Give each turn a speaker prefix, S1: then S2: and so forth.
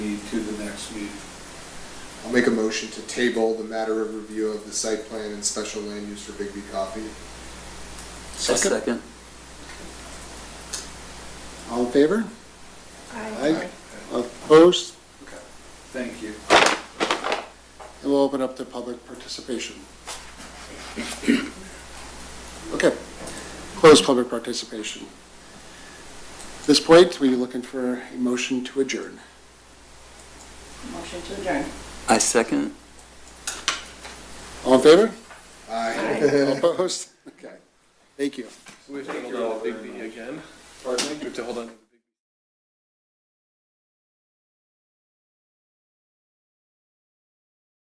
S1: next meeting.
S2: I'll make a motion to table the matter of review of the site plan and special land use for Bigby Coffee.
S3: I'll second.
S4: All in favor?
S2: Aye.
S4: Opposed?
S1: Okay, thank you.
S4: And we'll open up to public participation. Okay, close public participation. At this point, we're looking for a motion to adjourn.
S5: Motion to adjourn.
S3: I second.
S4: All in favor?
S2: Aye.
S4: Opposed? Okay, thank you.
S6: We have to hold on to Bigby again. Pardon me? We have to hold on to